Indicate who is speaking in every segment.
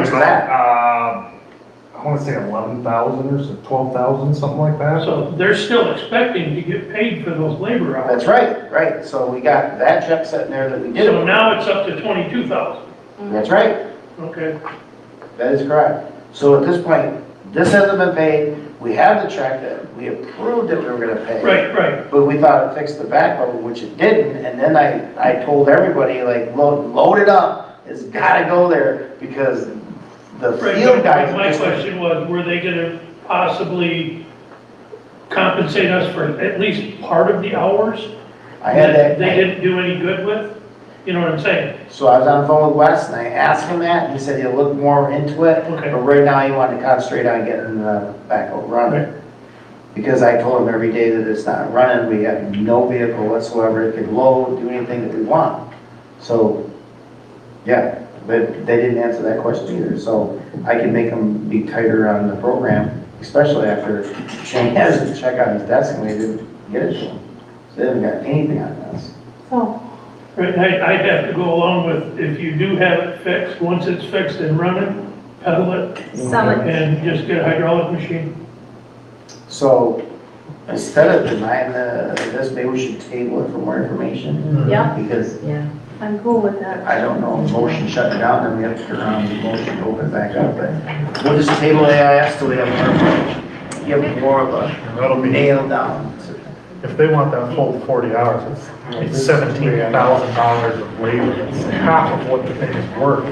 Speaker 1: was that?
Speaker 2: Uh, I wanna say eleven thousand or so, twelve thousand, something like that.
Speaker 3: So they're still expecting to get paid for those labor hours.
Speaker 1: That's right, right, so we got that check sitting there that we
Speaker 3: So
Speaker 1: did.
Speaker 3: now it's up to twenty-two thousand,
Speaker 1: That's right,
Speaker 3: okay?
Speaker 1: that is correct. So at this point, this hasn't been paid, we have the check that we approved that we were gonna pay.
Speaker 3: Right, right,
Speaker 1: But we thought it fixed the backhoe, which it didn't, and then I, I told everybody, like, load, load it up, it's gotta go there, because the
Speaker 3: right.
Speaker 1: field
Speaker 3: But
Speaker 1: guys.
Speaker 3: My
Speaker 1: just-
Speaker 3: question was, were they gonna possibly compensate us for at least part of the hours?
Speaker 1: I had that.
Speaker 3: They didn't do any good with? You know what I'm saying?
Speaker 1: So I was on the phone with Wes and I asked him that, and he said he'll look more into it.
Speaker 3: Okay.
Speaker 1: But right now, he wanted to concentrate on getting the backhoe running. Because I told him every day that it's not running, we have no vehicle whatsoever, it can load, do anything that we want. So, yeah, but they didn't answer that question either, so I can make them be tighter on the program, especially after Shane has a check on his desk and we didn't get it to him. So they haven't got anything on us.
Speaker 4: So,
Speaker 3: Right, and I, I'd have to go along with, if you do have it fixed, once it's fixed and running, pedal it
Speaker 4: sell it.
Speaker 3: and just get a hydraulic machine.
Speaker 1: So instead of denying the, this, maybe we should table it for more information,
Speaker 4: Yeah,
Speaker 1: because
Speaker 4: yeah, I'm cool with that.
Speaker 1: I don't know, if motion shut it down, then we have to turn around and motion to open it back up, but we'll just table AIS till we have more information. Give more of a
Speaker 2: That'll be,
Speaker 1: nail down.
Speaker 2: if they want that full forty hours, it's- it's seventeen thousand dollars of labor, it's half of what the thing is worth.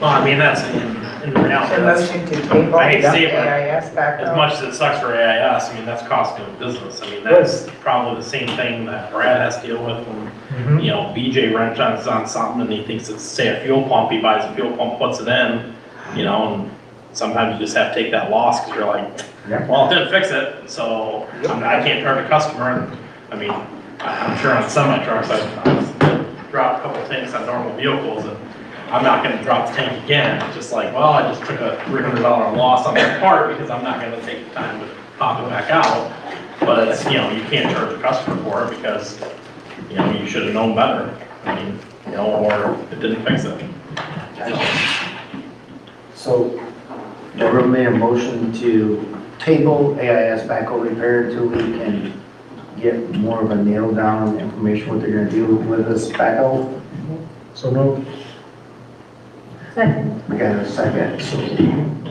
Speaker 5: Well, I mean, that's in, in reality, that's,
Speaker 6: to table
Speaker 5: I hate to see it, but-
Speaker 6: AIS back
Speaker 5: as much as it sucks for AIS, I mean, that's cost of doing business. I mean, that's probably the same thing that Brad has to deal with when,
Speaker 2: Mm-hmm.
Speaker 6: Mm-hmm.
Speaker 5: you know, BJ wrench on, on something and he thinks it's, say, a fuel pump, he buys a fuel pump, puts it in, you know, and sometimes you just have to take that loss because you're
Speaker 1: Yeah.
Speaker 5: like, well, it didn't fix it, so I'm- I can't turn a customer. I mean, I- I'm sure on semi trucks, I've I've dropped a couple tanks on normal vehicles and I'm not gonna drop the tank again. It's just like, well, I just took a three hundred dollar loss on that part because I'm not gonna take the time to pop it back out. But it's, you know, you can't charge the customer for it because, you know, you should have known better. I mean, you know, or it didn't fix it.
Speaker 1: So Deborah made a motion to table AIS backhoe repair until we can get more of a nail down on information, what they're gonna do with this backhoe.
Speaker 2: So no,
Speaker 4: Second,
Speaker 1: We got a second, so. Second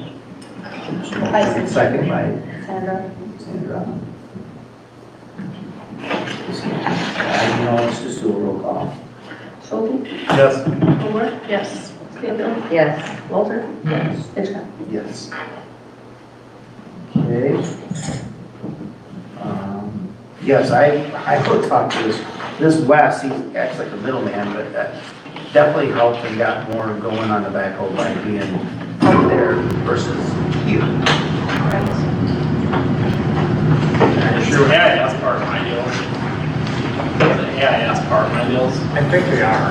Speaker 1: by
Speaker 4: Sandra.
Speaker 1: Sandra. I don't know, let's just do a roll call.
Speaker 7: Scholte,
Speaker 2: yes,
Speaker 7: Kilgore,
Speaker 4: Yes.
Speaker 7: Stanfield,
Speaker 4: Yes.
Speaker 7: Walter. Yes. Hitchcock.
Speaker 1: Yes. Okay. Um, Yes, I, I could talk to this, this Wes, he acts like a middleman, but that definitely helped and got more going on the backhoe by being up there versus you.
Speaker 5: It's your AIS part of my deal. It's an AIS part of my deals.
Speaker 2: I think they are.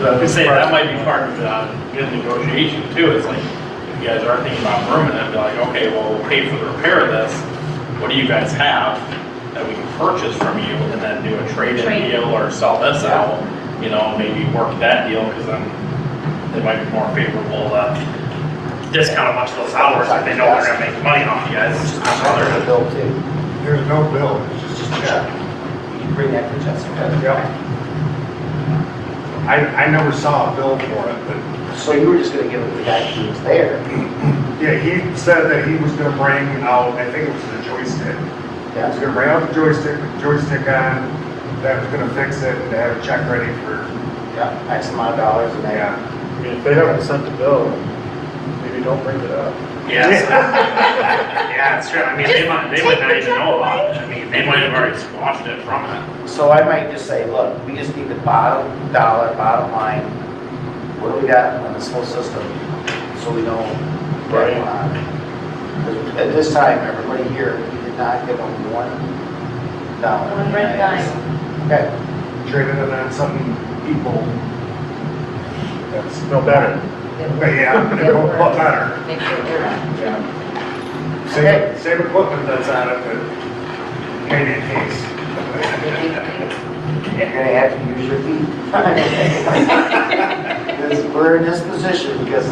Speaker 5: Okay. We say that might be part of the uh, good negotiation too. It's like, if you guys are thinking about rooming it, be like, okay, well, we'll pay for the repair of this. What do you guys have that we can purchase from you and then do a trade-in
Speaker 7: Trade.
Speaker 5: deal or sell this out? You know, maybe work that deal because then it might be more favorable, uh, discount a bunch of those hours if they know they're gonna make money off you guys. I'd rather-
Speaker 1: bill too.
Speaker 6: There's no bill, it's just a check.
Speaker 1: Bring that to Jessica.
Speaker 6: Yep. I, I never saw a bill for it, but,
Speaker 1: So you were just gonna give it to the guy who was there?
Speaker 6: yeah, he said that he was gonna bring out, I think it was the joystick. He was gonna bring out the joystick, with the joystick on, that was gonna fix it, and to have a check ready for,
Speaker 1: Yeah, X amount of dollars and
Speaker 6: yeah.
Speaker 2: I mean, if they haven't sent the bill, maybe don't bring it up.
Speaker 5: Yes. Yeah, it's true. I mean, they might, they might not even know about it. I mean, they might have already squashed it from it.
Speaker 1: So I might just say, look, we just need the bottom dollar, bottom line, what do we got on this whole system? So we know where we're at. 'Cause At this time, everybody here, we did not give them one dollar.
Speaker 7: One red dime.
Speaker 1: Okay,
Speaker 6: traded it on something equal. That's,
Speaker 2: No better.
Speaker 6: but yeah,
Speaker 7: It worked.
Speaker 6: what matter?
Speaker 7: Make sure they're right.
Speaker 1: Okay.
Speaker 6: Same, same equipment that's on it, but maybe in case.
Speaker 1: you're gonna have to use your feet. 'Cause we're in this position because